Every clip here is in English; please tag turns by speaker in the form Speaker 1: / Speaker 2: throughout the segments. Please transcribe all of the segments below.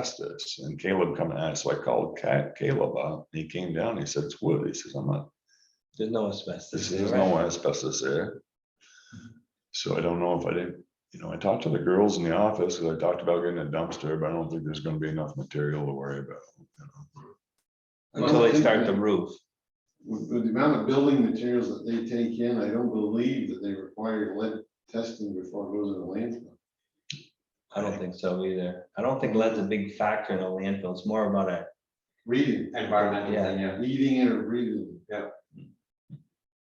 Speaker 1: asbestos and Caleb come out. So I called Ca- Caleb up and he came down. He said, it's wood. He says, I'm not,
Speaker 2: There's no asbestos.
Speaker 1: there's
Speaker 2: there,
Speaker 1: there's
Speaker 2: right?
Speaker 1: no asbestos there. So I don't know if I did, you know, I talked to the girls in the office and I talked about getting a dumpster, but I don't think there's gonna be enough material to worry about. you know.
Speaker 2: Until they
Speaker 3: Well,
Speaker 2: start the
Speaker 3: yeah.
Speaker 2: roof.
Speaker 3: With with the amount of building materials that they take in, I don't believe that they require lead testing before it goes in the landfill.
Speaker 2: I don't think so either. I don't think lead's a big factor in a landfill. It's more about a,
Speaker 3: Reading,
Speaker 4: Environmental,
Speaker 2: Yeah.
Speaker 4: thing, yeah,
Speaker 3: eating it or breathing.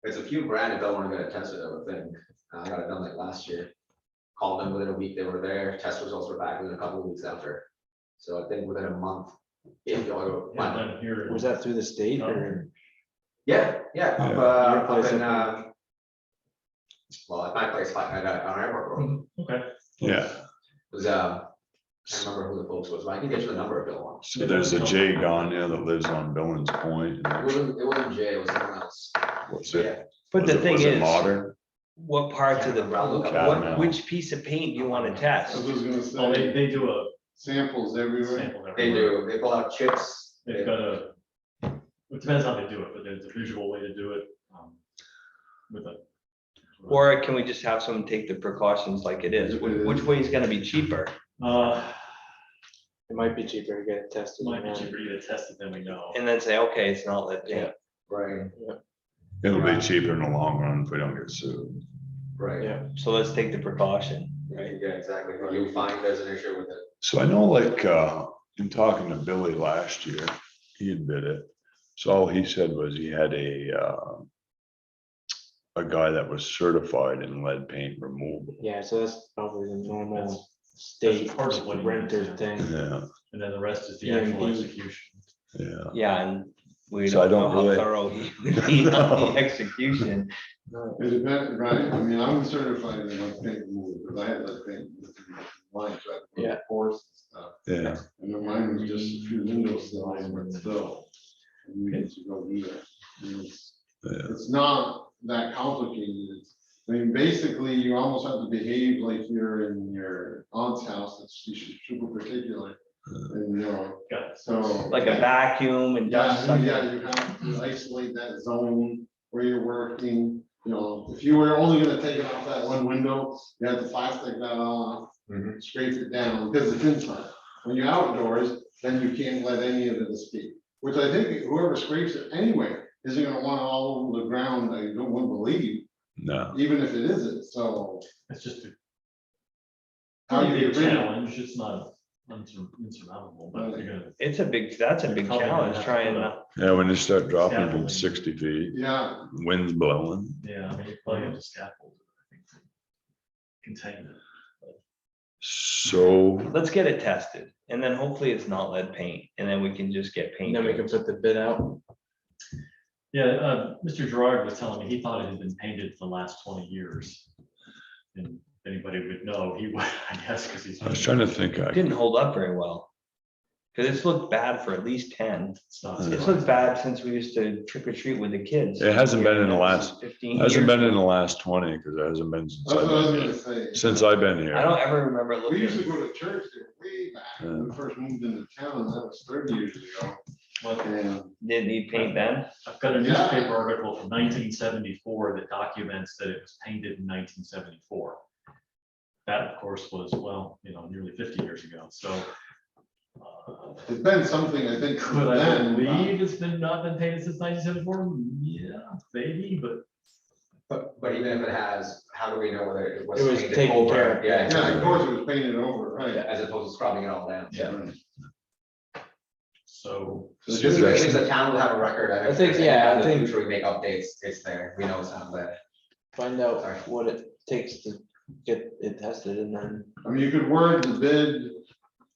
Speaker 4: there's a few brand that don't wanna get it tested, I would think, Uh, I got it done like last year. Called them within a week, they were there, test results were back within a couple of weeks after, so I think within a month. If y'all
Speaker 5: Yeah,
Speaker 4: go,
Speaker 5: done here.
Speaker 2: was that through the state or?
Speaker 4: yeah, yeah, up,
Speaker 1: Yeah.
Speaker 4: uh,
Speaker 2: Your
Speaker 4: up
Speaker 2: place
Speaker 4: in,
Speaker 2: up
Speaker 4: um. Well, at my place, like, I got on airport
Speaker 5: Mm-hmm.
Speaker 4: road, it
Speaker 5: Okay,
Speaker 1: Yeah,
Speaker 4: was, um, I can't remember who the folks was, but I can get you the number if you want.
Speaker 1: so there's a Jay gone there that lives on Billings Point.
Speaker 4: It
Speaker 1: and
Speaker 4: wasn't, it wasn't Jay, it was someone else,
Speaker 1: what's it-
Speaker 4: yeah,
Speaker 2: But
Speaker 1: was
Speaker 2: the
Speaker 1: it-
Speaker 2: thing
Speaker 1: was it
Speaker 2: is,
Speaker 1: Modern,
Speaker 2: what parts of the, what,
Speaker 1: Catamount.
Speaker 2: which piece of paint do you want to test?
Speaker 3: I was gonna
Speaker 5: well, Oh, they,
Speaker 3: say,
Speaker 5: they do a
Speaker 3: samples everywhere.
Speaker 5: sample.
Speaker 4: they
Speaker 5: everywhere.
Speaker 4: do, they pull out chips.
Speaker 5: They've got a, it depends how they do it, but there's a visual way to do it. um, With a.
Speaker 2: Or can we just have someone take the precautions like it is? Wh- Which way is gonna be cheaper?
Speaker 5: Uh,
Speaker 6: It might be cheaper to get it tested.
Speaker 5: might be
Speaker 6: now.
Speaker 5: cheaper to test it than we know.
Speaker 2: And then say, okay, it's not lead paint.
Speaker 4: Right,
Speaker 1: it'll be cheaper in the long run if we don't get sued.
Speaker 4: right.
Speaker 6: Yeah.
Speaker 2: So let's take the precaution.
Speaker 4: Right, yeah, exactly. If you find there's an issue with it.
Speaker 1: So I know like, uh, in talking to Billy last year, he had bid it. So all he said was he had a, uh, a guy that was certified in lead paint removal.
Speaker 6: Yeah, so that's probably the
Speaker 5: That's-
Speaker 6: normal state
Speaker 5: part of what it is, yeah.
Speaker 6: renter thing.
Speaker 1: Yeah,
Speaker 5: And then the rest
Speaker 6: E
Speaker 5: is the actual
Speaker 6: Yeah, indeed.
Speaker 5: execution.
Speaker 1: yeah.
Speaker 2: Yeah, and we
Speaker 1: So I
Speaker 2: don't
Speaker 1: don't
Speaker 2: know how
Speaker 1: really-
Speaker 2: thorough he would be on the execution.
Speaker 3: It depends, right? I mean, I'm certified in lead paint removal, because I had lead paint. Mine, so I had to put
Speaker 6: Yeah.
Speaker 3: pores and stuff.
Speaker 1: Yeah,
Speaker 3: And then mine was just a few window sills, but still. You need to go do that. And it's-
Speaker 1: Yeah.
Speaker 3: It's not that complicated. It's- I mean, basically, you almost have to behave like you're in your aunt's house, that's she's super particular. And, you know,
Speaker 5: Got it.
Speaker 3: so.
Speaker 2: Like a vacuum and dust.
Speaker 3: Yeah,
Speaker 2: suck-
Speaker 3: yeah, you have to isolate that zone where you're working, you know, if you were only gonna take it off that one window, you have to plastic that off.
Speaker 4: Mhm.
Speaker 3: Scrape it down, because it's inside, when you're outdoors, then you can't let any of it escape, which I think whoever scrapes it anyway, isn't gonna want all over the ground, I don't want to believe,
Speaker 1: no,
Speaker 3: even if it isn't, so.
Speaker 5: It's just a
Speaker 3: how do
Speaker 5: pretty
Speaker 3: you
Speaker 5: big
Speaker 3: get rid of it?
Speaker 5: challenge. It's not unsur- insurmountable, but you're gonna.
Speaker 2: It's a big, that's a big
Speaker 5: Probably gonna
Speaker 2: challenge
Speaker 5: have to
Speaker 2: trying
Speaker 5: put
Speaker 2: to,
Speaker 5: a-
Speaker 1: yeah, when you start dropping from sixty feet,
Speaker 3: Yeah,
Speaker 1: wind's blowing.
Speaker 5: Yeah, I mean, you probably have to scaffold. it, I think, to Contain it.
Speaker 1: So,
Speaker 2: let's get it tested. And then hopefully it's not lead paint and then we can just get
Speaker 6: And
Speaker 2: paint.
Speaker 6: then we can put the bid out.
Speaker 5: Yeah, uh, Mr. Gerard was telling me he thought it had been painted for the last twenty years. And anybody would know, he would, I guess, because he's.
Speaker 1: I was trying to think, I,
Speaker 2: Didn't hold up very well. Cause it's looked bad for at least ten.
Speaker 5: It's not.
Speaker 2: It's looked bad since we used to trick or treat with the kids.
Speaker 1: It hasn't been in the last-
Speaker 2: Fifteen years.
Speaker 1: hasn't been in the last twenty, because it hasn't been since
Speaker 3: that's what I was
Speaker 1: I've
Speaker 3: gonna
Speaker 1: been,
Speaker 3: say.
Speaker 1: since I've been
Speaker 2: I
Speaker 1: here.
Speaker 2: don't ever remember it
Speaker 3: We used to
Speaker 2: looking.
Speaker 3: go to church there way back, when we first moved into town, that was thirty years ago.
Speaker 5: Well,
Speaker 3: And
Speaker 2: Did need paint then?
Speaker 5: I've got a
Speaker 3: Yeah.
Speaker 5: newspaper article from nineteen seventy-four that documents that it was painted in nineteen seventy-four. That, of course, was, well, you know, nearly fifty years ago, so. uh,
Speaker 3: It's been something, I think, since
Speaker 5: Could I
Speaker 3: then. uh, but-
Speaker 5: believe it's been not been painted since nineteen seventy-four? Yeah, maybe, but
Speaker 4: But, but even if it has, how do we know whether it was?
Speaker 6: It was
Speaker 4: painted
Speaker 6: taken
Speaker 4: over?
Speaker 6: care of.
Speaker 4: Yeah,
Speaker 3: Yeah, of
Speaker 4: exactly.
Speaker 3: course, it was painted over, right?
Speaker 4: As opposed to scrubbing it all down.
Speaker 5: yeah,
Speaker 3: Right.
Speaker 5: so.
Speaker 3: So
Speaker 4: Just
Speaker 3: just-
Speaker 4: in case the town will have a record.
Speaker 6: I think, yeah, I think-
Speaker 4: Sure, we make updates, it's there, we know it's not there.
Speaker 6: Find
Speaker 4: Sorry.
Speaker 6: out what it takes to get it tested and then
Speaker 3: I mean, you could word the bid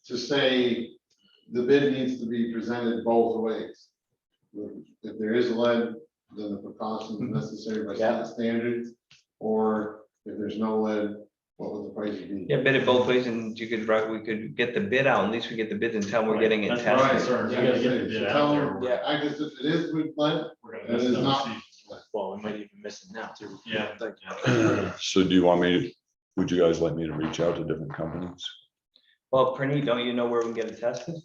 Speaker 3: to say the bid needs to be presented both ways. If there is lead, then the precautions necessary by
Speaker 6: Yeah.
Speaker 3: state standards, or if there's no lead, what would the price be?
Speaker 2: Yeah, bid it both ways and you could, right, we could get the bid out, at least we get the bids and tell we're
Speaker 5: Right,
Speaker 2: getting it
Speaker 5: that's my
Speaker 2: tested.
Speaker 5: concern. We
Speaker 3: Yeah,
Speaker 5: gotta get
Speaker 3: so-
Speaker 5: the bid
Speaker 3: so
Speaker 5: out
Speaker 3: tell
Speaker 5: there.
Speaker 3: them,
Speaker 6: Yeah.
Speaker 3: I guess if it is with lead,
Speaker 5: we're gonna
Speaker 3: it
Speaker 5: miss
Speaker 3: is
Speaker 5: those
Speaker 3: not.
Speaker 5: seasons.
Speaker 6: well, we might even miss it now too.
Speaker 5: Yeah.
Speaker 6: Like,
Speaker 1: So do you want me, would you guys like me to reach out to different companies?
Speaker 2: Well, Prinny, don't you know where we can get it tested?